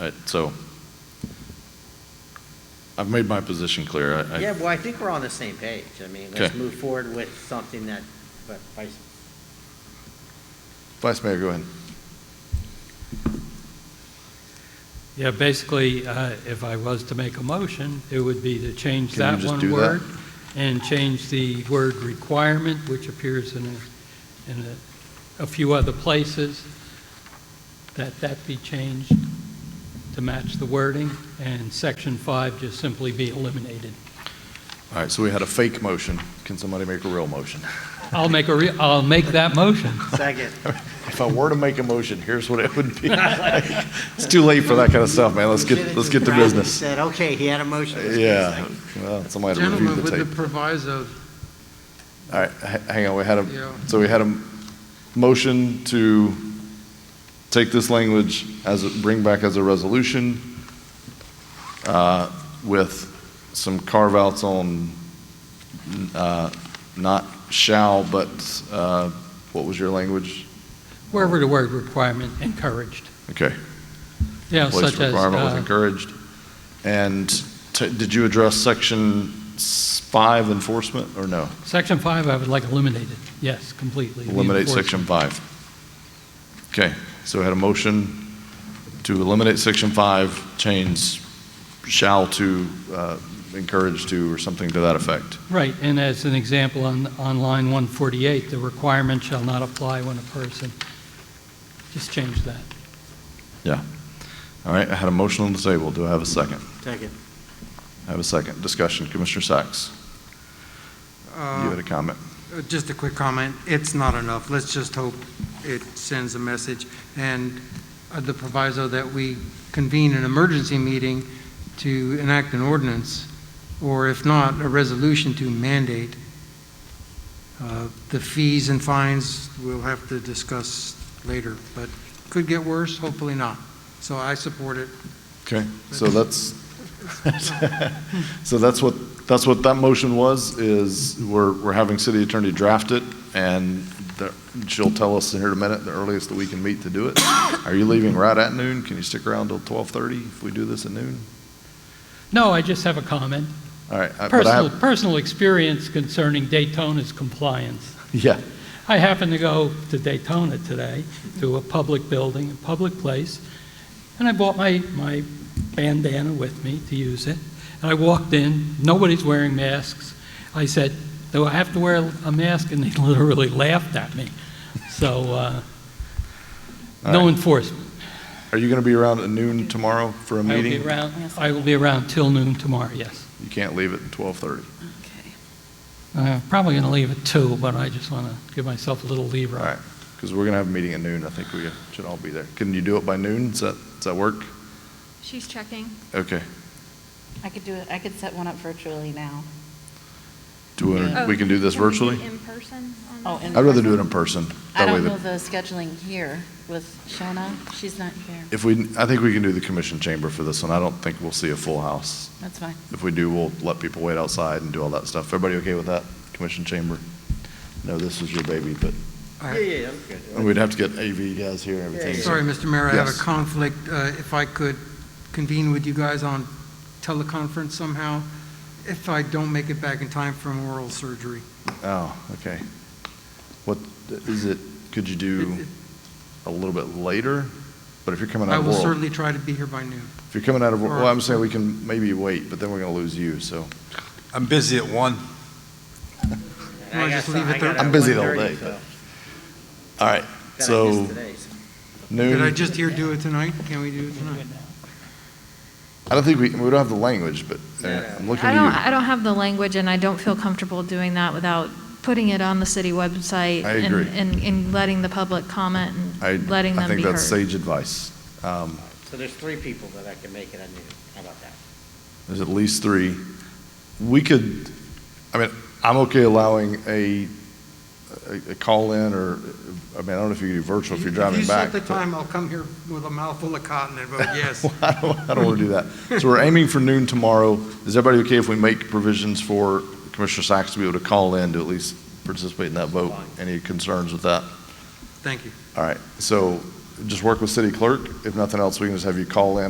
I- So I've made my position clear. I- I- Yeah, well, I think we're on the same page. I mean, let's Okay. move forward with something that, but Vice Vice Mayor, go ahead. Yeah, basically, uh, if I was to make a motion, it would be to change Can you that just one do that? word and change the word requirement, which appears in a, in a, a few other places, that that be changed to match the wording, and section five just simply be eliminated. All right, so we had a fake motion. Can somebody make a real motion? I'll make a re, I'll make that motion. Second. If I were to make a motion, here's what it would be. It's too late for that kind of stuff, man. Let's get, let's get to Brad business. Uh, Said, okay, he had a motion. Let's get a Yeah, second." well, somebody had to review Gentlemen, the with the tape. proviso, All right, ha- hang on, we had Yeah. a, so we had a motion to take this language as, a- bring back as a resolution uh, with some carve-outs on uh, not shall, but uh, what was your language? Wherever the word requirement encouraged. Okay. Yeah, Place such as, requirement was uh, encouraged. And t- did you address section s- five enforcement, or no? section five, I would like eliminated, yes, completely. The Eliminate section enforcement. five. Okay, so we had a motion to eliminate section five, change shall to, uh, encourage to, or something to that effect. Right, and as an example, on, on line 148, the requirement shall not apply when a person, just change that. All right, I had a motion on the table. Do I have a second? Second. I have a second. Discussion, Commissioner Sacks, you had uh, a comment. just a quick comment, it's not enough. Let's just hope it sends a message. And uh, the proviso that we convene an emergency meeting to enact an ordinance, or if not, a resolution to mandate. Uh, The fees and fines, we'll have to discuss later, but could get worse, hopefully not. So I support it. Okay, so that's, so that's what, that's what that motion was, is we're, we're having city attorney draft it, and the- she'll tell us in here in a minute, the earliest that we can meet to do it. Are you leaving right at noon? Can you stick around till 12:30 if we do this at noon? No, I just have a comment. All right. I- but I Personal, have- personal experience concerning Daytona's compliance. Yeah, I happened to go to Daytona today, to a public building, a public place, and I bought my, my bandana with me to use it. And I walked in, nobody's wearing masks. I said, do I have to wear a mask? And they literally laughed at me. So, uh, All no right. enforcement. are you going to be around at noon tomorrow for a I will meeting? be around, I will be around till noon tomorrow, yes. You can't leave at 12:30. Uh, Probably going to leave at two, but I just want to give myself a little leave All room. right, because we're going to have a meeting at noon. I think we should all be there. Can you do it by noon? Does that, does that work? She's checking. Okay. I could do it, I could set one up virtually now. Do we, we can do this Oh, we do virtually? it In person? on Oh, that? in- I'd rather do it in person. I That way, don't the- know the scheduling here with Shona, she's not here, if we, I think we can do the commission chamber for this one. I don't think we'll see a full house. that's fine. If we do, we'll let people wait outside and do all that stuff. Everybody okay with that, commission chamber? No, this is your baby, but I- Yeah, yeah, I'm good. and we'd have to get AV guys here and everything. Sorry, Mr. Mayor, I have a Yes. conflict. Uh, If I could convene with you guys on teleconference somehow, if I don't make it back in time from oral surgery. Oh, okay. What, is it, could you do a little bit later? But if you're coming I out of will Laurel, certainly try to be here by noon. if you're coming out of, well, Or- I'm saying we can maybe wait, but then we're going to lose you, so. I'm busy at one. And I Wanna got just some- leave it I there? got I'm a busy the whole 1:30, day, so- All right, that I So- missed today, so- Did I noon. just hear do it tonight? Can we do it tonight? I don't think we, we don't have the language, but uh, No, no. I'm looking I at don't, you. I don't have the language, and I don't feel comfortable doing that without putting it on the city website. I and- agree. And, and letting the public comment I, and letting I them be think heard. that's sage advice. Um, So there's three people that I can make it on you. How about that? There's at least three. We could, I mean, I'm okay allowing a, a- a call-in or, I mean, I don't know if you could do virtual if you're driving back. If you set the but- time, I'll come here with a mouthful of cotton and vote yes. Well, I don't, I don't want to do that. So we're aiming for noon tomorrow. Is everybody okay if we make provisions for Commissioner Sacks to be able to call in to at least participate in that vote? Any concerns with that? Thank you. All right, so just work with city clerk. If nothing else, we can just have you call in